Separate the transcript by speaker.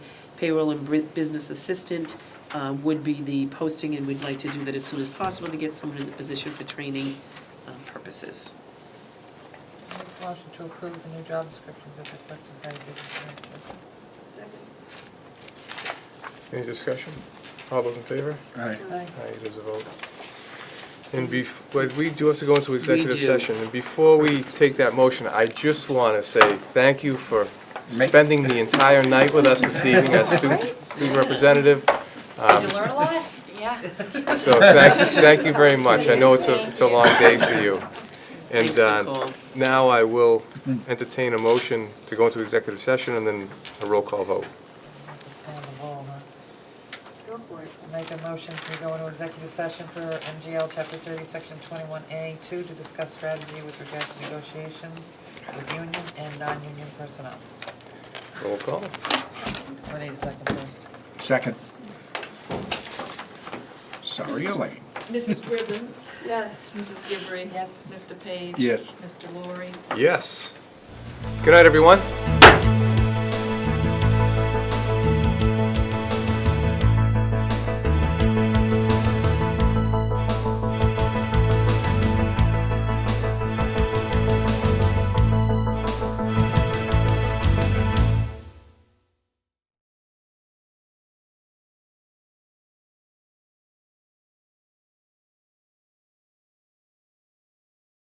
Speaker 1: payroll and bri- business assistant uh, would be the posting, and we'd like to do that as soon as possible to get someone in the position for training uh, purposes.
Speaker 2: Make a motion to approve the new job descriptions as requested by the business director.
Speaker 3: Any discussion? All those in favor?
Speaker 4: Aye.
Speaker 2: Aye.
Speaker 3: Aye, it is a vote. And bef, but we do have to go into executive
Speaker 1: do.
Speaker 3: session. And before we take that motion, I just want to say thank you for
Speaker 4: Ma-
Speaker 3: spending the entire night with us this evening as student, student representative. Um,
Speaker 5: Did you learn a lot? Yeah.
Speaker 3: So thank, thank you very much. I know it's a, it's a long day for you. And
Speaker 1: Thanks,
Speaker 3: uh,
Speaker 1: Nicole.
Speaker 3: now I will entertain a motion to go into executive session and then a roll call vote.
Speaker 2: Just stay on the ball, huh?
Speaker 5: Go for it.
Speaker 2: Make a motion to go into executive session for MGL Chapter 30, Section 21A2 to discuss strategy with regards to negotiations with union and non-union personnel.
Speaker 3: Roll call.
Speaker 2: Renee, the second first.
Speaker 4: Second. Sorry you're late.
Speaker 6: Mrs. Gibbons,
Speaker 5: Yes.
Speaker 6: Mrs. Gibbrey.
Speaker 2: Yes.
Speaker 6: Mr. Page.
Speaker 4: Yes.
Speaker 6: Mr. Laurie.
Speaker 3: Yes. Good night, everyone.